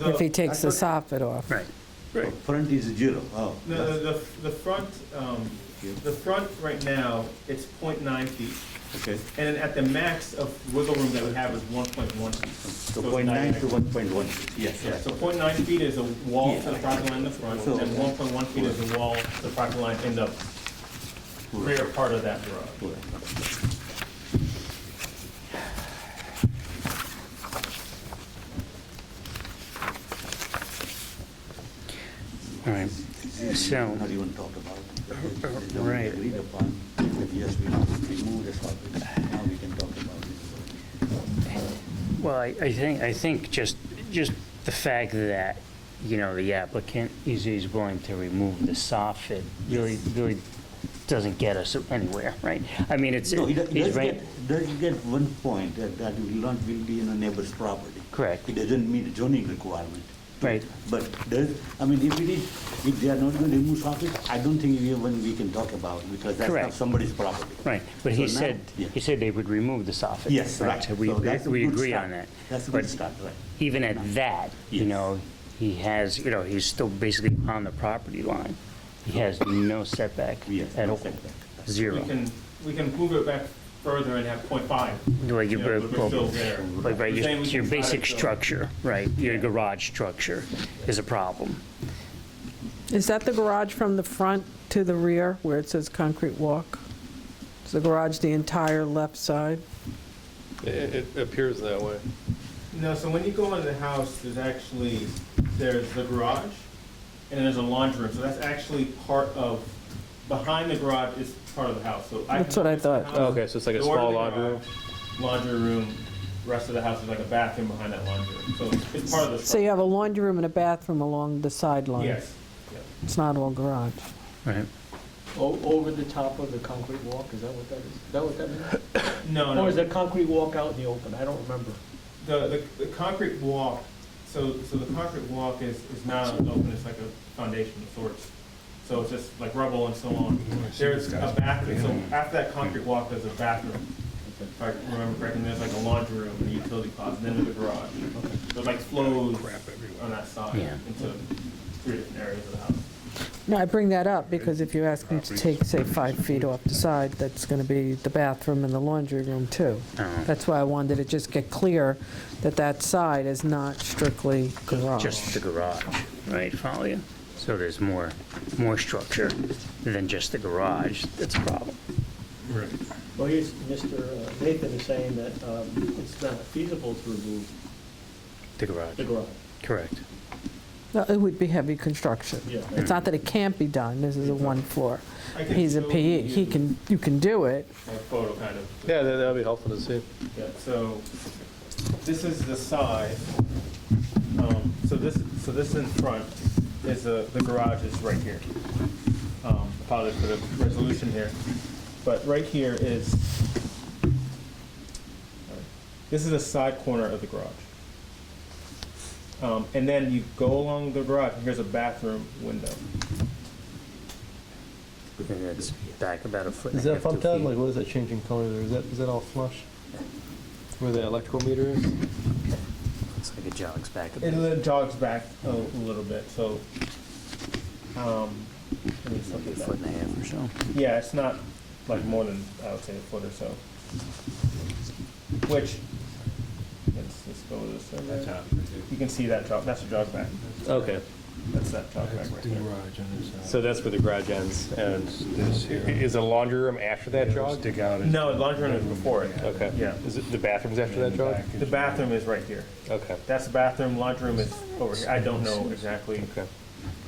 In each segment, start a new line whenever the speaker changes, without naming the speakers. if he
The-
takes the soffit off.
Right.
Right.
Front is zero, oh.
No, the, the, the front, um, the front right now, it's 0.9 feet,
Okay,
and then at the max of wiggle room that we have is one point one feet.
so
it's
point nine to
actually-
one point one, yes.
Yeah, so 0.9 feet is a wall to the property line in the front,
So-
and one point one feet is the wall to the property line in the rear part of that garage.
All right, so, oh,
Not even talked about. They don't
right.
Agreed upon, But yes, we have to remove the soffit, now we can talk about it.
well, I, I think, I think just, just the fact that, you know, the applicant is, is willing to remove the soffit really, really doesn't get us anywhere, right? I mean, it's,
No, he do- he
he's
does
right,
get, does get one point, that, that will not, will be in a neighbor's property.
Correct.
It doesn't meet zoning requirement.
Right.
But does, I mean, if it is, if they are not going to remove soffit, I don't think even we can talk about, because that's not
Correct.
somebody's property.
right, but he
So now-
said,
Yeah.
he said they would remove the soffit.
Yes, right.
So we,
So that's a
we
good
agree
start.
on that.
That's a
But
good start, right.
even at that, you
Yes.
know, he has, you know, he's still basically on the property line. He has no setback
Yes,
at
no
all,
setback.
We
zero.
can, we can move it back further and have 0.5.
Well,
you
you-
know, but we're still there.
Like,
We're
right, your,
saying we
your
can try to
basic
go-
structure, right, your garage structure is a problem.
Is that the garage from the front to the rear where it says concrete walk? Is the garage the entire left side?
It it appears that way.
No, so when you go into the house, there's actually, there's the garage, and then there's a laundry room, so that's actually part of, behind the garage is part of the house, so. I
That's what I
can-
thought.
the house,
Oh, Okay, so it's like a
door to
small
the
laundry room?
garage, Laundry room, rest of the house is like a bathroom behind that laundry room, so it's- it's part of the.
So you have a laundry room and a bathroom along the
structure.
sideline?
Yes,
It's not all garage.
Right.
O- Over the top of the concrete walk, is that what that is? Is that what that means?
no, no.
Or is that concrete walk out in the open? I don't remember.
The, the, the concrete walk, so, so the concrete walk is, is not open, it's like a foundation of sorts. So it's just like rubble and so on. There's a bathroom, so after that concrete walk, there's a bathroom. If I remember correctly, there's like a laundry room and a utility closet, then there's a garage. So it like flows on that side
Yeah.
into three different areas of the house.
No, I bring that up because if you ask them to take, say, five feet off the side, that's going to be the bathroom and the laundry room too.
Uh-huh.
That's why I wanted to just get clear that that side is not strictly garage.
Just the garage, right, follow you? So there's more, more structure than just the garage that's a problem.
Well, here's, Mr. Nathan is saying that um, it's not feasible to remove
The garage,
the garage.
correct.
No, It would be heavy construction.
Yeah.
It's not that it can't be done, this is a one floor.
I can
He's a
show
PE, he
you
can, you can do it.
A photo kind of.
Yeah, that- that'd be helpful to see.
Yeah, so this is the side. Um, So this, so this in front is the, the garage is right here. Um, Apologies for the resolution here. But right here is, this is the side corner of the garage. Um, And then you go along the garage, and here's a bathroom window.
And it's back about a foot and
Is
a
that
half, two
pumped out?
feet.
Like, what is that changing color there? Is that, is that all flush? Where the electrical meter is?
It's like it jogs back a
It
bit.
li- jogs back a little bit, so. um, Let me just look
Like a
at that.
foot and a half or so.
Yeah, it's not like more than, I would say, a foot or so. Which, let's, let's go with this. over there. You can see that jog, that's a jog back.
Okay.
That's that jog back right there.
So that's where the garage ends, and i- is a laundry room after that jog? Dig out.
No, the laundry room is before it.
Okay.
Yeah.
Is it, the bathroom's after that jog?
The bathroom is right here.
Okay,
That's the bathroom, laundry room is over here. I don't know exactly.
okay.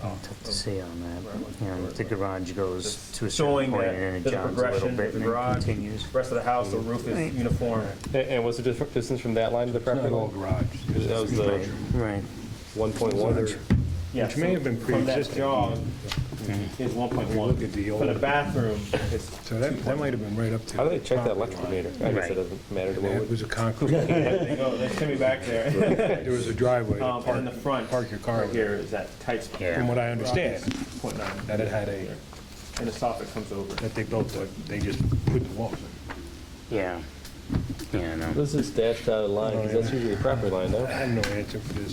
Tough to say on that, you know, if the garage goes
Just
to a certain
showing
point
that
and then it
there's a
jogs a little
progression to
bit and
the
then
garage.
continues.
Rest of the house, the roof is uniform.
And- And what's the dif- distance from that line to the property line? garage. That was the
Right,
1.1 or?
Which may have been pre-existing. From that jog
Mm-hmm.
is one point one. For the bathroom, it's
So that, that might have been right up to.
How do they check that electrical meter? I guess
Right.
it doesn't matter to what
It
we-
was a concrete,
There you go, they sent me back there.
there was a driveway to
Um, and in
park,
the front.
park your car.
Right here is that tight spot.
Yeah.
From what I understand,
Point nine.
that it had a,
And the soffit comes over.
that they built, a- they just put the walls in.
yeah, yeah, I know.
Oh, This is dashed out of line, because that's usually a property line, no?
I have no answer for this.